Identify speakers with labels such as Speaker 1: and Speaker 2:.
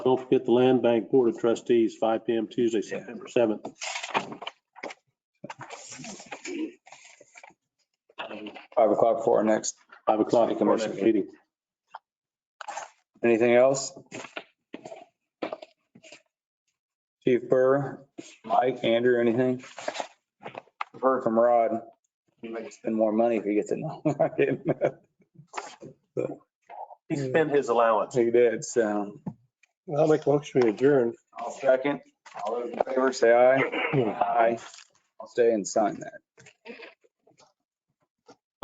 Speaker 1: Don't forget the Land Bank Board of Trustees, 5 PM Tuesday, September 7th.
Speaker 2: Five o'clock for our next.
Speaker 1: 5 o'clock
Speaker 2: City
Speaker 1: for our
Speaker 2: Commission
Speaker 1: next meeting.
Speaker 2: Anything else? Chief Burr, Mike, Andrew, anything? Heard from Rod. He might spend more money if he gets it. No, I didn't.
Speaker 1: He spent his allowance.
Speaker 2: He did, so.
Speaker 1: I'll make a motion to adjourn.
Speaker 2: I'll second. All those in favor, say aye. Aye. I'll stay and sign that.